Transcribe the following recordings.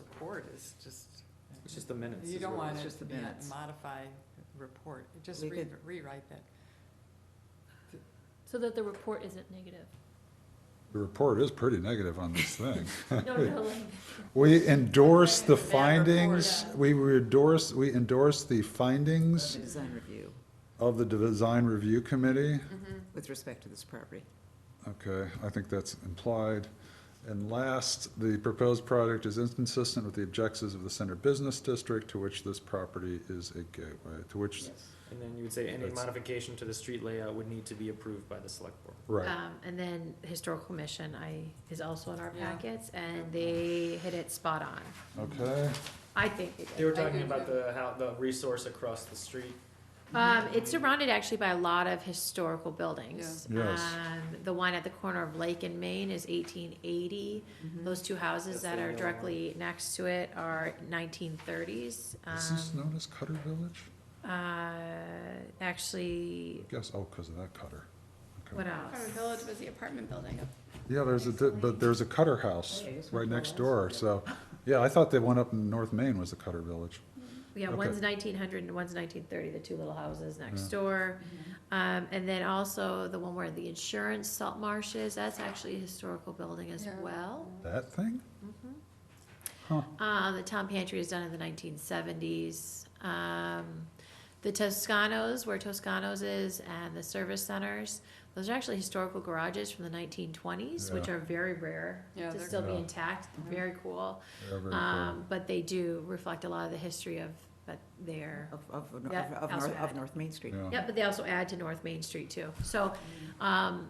report is just, It's just the minutes. you is don't what it want is. it just to the be a minutes. modified report, just We re- could- rewrite that. So that the report isn't negative. The report is pretty negative on this thing. No, no, like, We endorse the Bad report. findings, we endorse, we endorse the findings the design review of the design review committee. Mm-hmm. with respect to this property. Okay, I think that's implied. And last, the proposed project is inconsistent with the objectives of the center business district to which this property is a gateway, to which, And then you would say any That's- modification to the street layout would need to be approved by the select board. right. Um, and then Historical Commission, I, is also in our Yeah. packets, and they hit it spot on. Um, Okay, I think they They did. were talking agree about with the, how, the resource across the street. Um, it's surrounded actually by a lot of historical buildings. Yeah. Yes. Um, the one at the corner of Lake and Main is eighteen eighty. Mm-hmm. Those two That's houses the that other are one. directly next to it are nineteen thirties. Um, is this um, known as Cutter Village? Uh, actually, Guess, oh, because of that cutter. Okay. what Harvard else? Village was the apartment building. Yeah, there's a, di- but there's a Cutter House Hey, it's right from next door, Florence. so, yeah, I thought the one up in North Maine was the Cutter Village. Yeah, Okay. one's nineteen hundred and one's nineteen thirty, the two little houses next door. Mm-hmm. Um, and then also the one where the insurance salt marsh is, that's actually a historical building as Yeah. well. That thing? Huh, Uh, the town pantry is done in the nineteen seventies. Um, the Toscanos, where Toscanos is, and the service centers, those are actually historical garages from the nineteen twenties, which Yeah. are very rare Yeah, to they're Mm-hmm. still be cool. intact, very cool. yeah, very cool. Um, but they do reflect a lot of the history of, but they're. Of, of, of, Yeah, of also North, of added. North Main Street. Yeah. Yeah, but they also add to North Main Street too. So, um,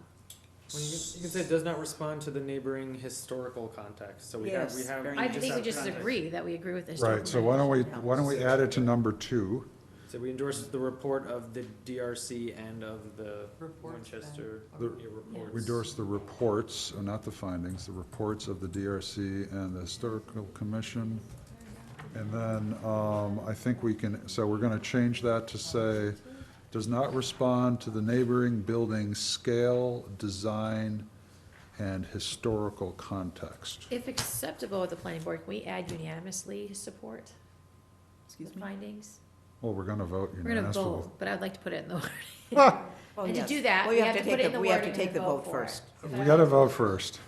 Well, you, can, you can say it does not respond to the neighboring historical context. So we have, we Yes, have. very I You just think we have just context. agree that we agree with this. Right, so why don't we, why don't we add it to number two? So we endorse the report of the DRC and of the Reports then. Winchester The- yeah, reports. We endorse the reports, uh, not the findings, the reports of the DRC and the Historical Commission. And then, um, I think we can, so we're gonna change that to say, does not respond to the neighboring building's scale, design, and historical context. If acceptable with the planning board, can we add unanimously support the Excuse me? findings? Well, we're gonna vote We're gonna unanimously. vote, but I'd like to put it in the word. Well, And to yes. do that, Well, we you have to take put it in the We have word to and then take the vote vote for it. first. We gotta vote first.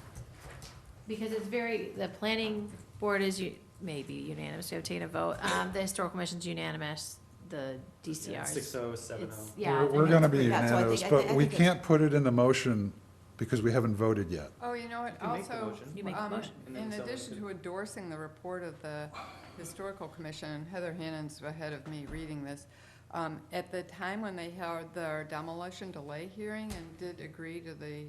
Because it's very, the planning board is u- maybe unanimous, we obtain a vote. Um, the historical commission's unanimous, the Yeah, DCR's. Six oh, seven it's- oh. Yeah. I We're- think We're it's gonna Yeah, be so I think- unanimous, I thi- but I we think it's- can't put it in the motion because we haven't voted yet. Oh, you know what, You make the also, motion. You make the um, motion. And then in someone addition can- to endorsing the report of the Historical Commission, Heather Hannon's ahead of me reading this. Um, at the time when they held their demolition delay hearing and did agree to the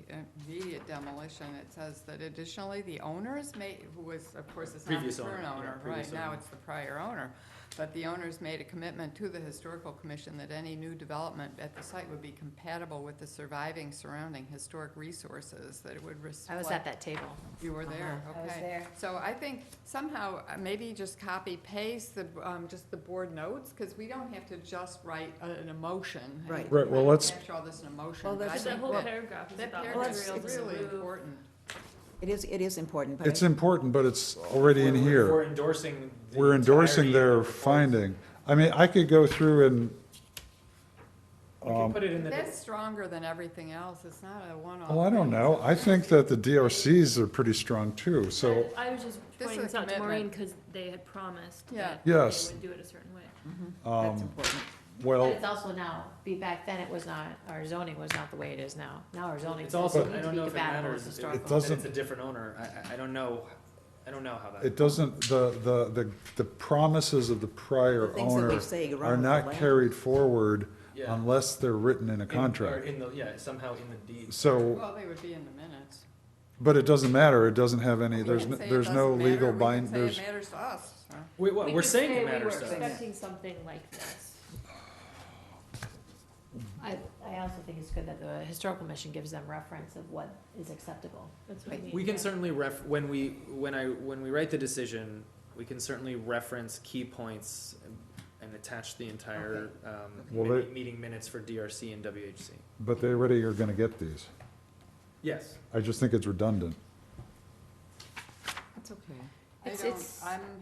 immediate demolition, it says that additionally, the owners may, who was, of course, it's not the Previous owner, current yeah, owner, previous right, now owner. it's the prior owner. But the owners made a commitment to the Historical Commission that any new development at the site would be compatible with the surviving surrounding historic resources, that it would I reflect. was at that table. You were there, okay. Uh-huh. I was there. So I think somehow, uh, maybe just copy paste the, um, just the board notes, because we don't have to just write a- an emotion. Right. Right, well, let's- Capture all this in emotion, Well, but I But that's- that think whole that, paragraph is that about paragraph materials is materials really removed. important. It is, it is important, but. I- It's important, but it's already in We're- here. We're endorsing. the we're endorsing entirety of the their reports. finding. I mean, I could go through and, We Um, can put it in the. That's stronger than everything else, it's not a one-off. well, I thing. don't know, I think that the DRCs are pretty strong too, so, I I was just This pointing is a this out to Maureen commitment. because they had promised Yeah. that they Yes. would do it a certain way. That's um, important. But well, it's also now, be back then, it was not, our zoning was not the way it is now. Now our zoning It's says also, it I needs to don't be know if it compatible matters. with if- historical. It that It's doesn't- a different owner. I- I, I don't know, I don't know how that. it doesn't, the, the, the the promises of the prior Things that owner we say are around the not land. carried forward Yeah. unless they're written in a In- or contract. In the, yeah, somehow in the deed. So, Well, they would be in the minutes. but it doesn't matter, it doesn't have We any, there's, can n- say it there's no doesn't matter, legal we can bind, say it there's, matters to us, so. Wait, what, We we're could saying say it matters We to were us. expecting something like this. I, I also think it's good that the historical commission gives them reference of what is acceptable. That's what I mean. We can yeah. certainly ref, when we, when I, when we write the decision, we can certainly reference key points and attach the entire, um, Well, mi- they- meeting minutes for DRC and WHC. but they already are gonna get these. Yes. I just think it's redundant. That's okay. I It's- don't, it's- I'm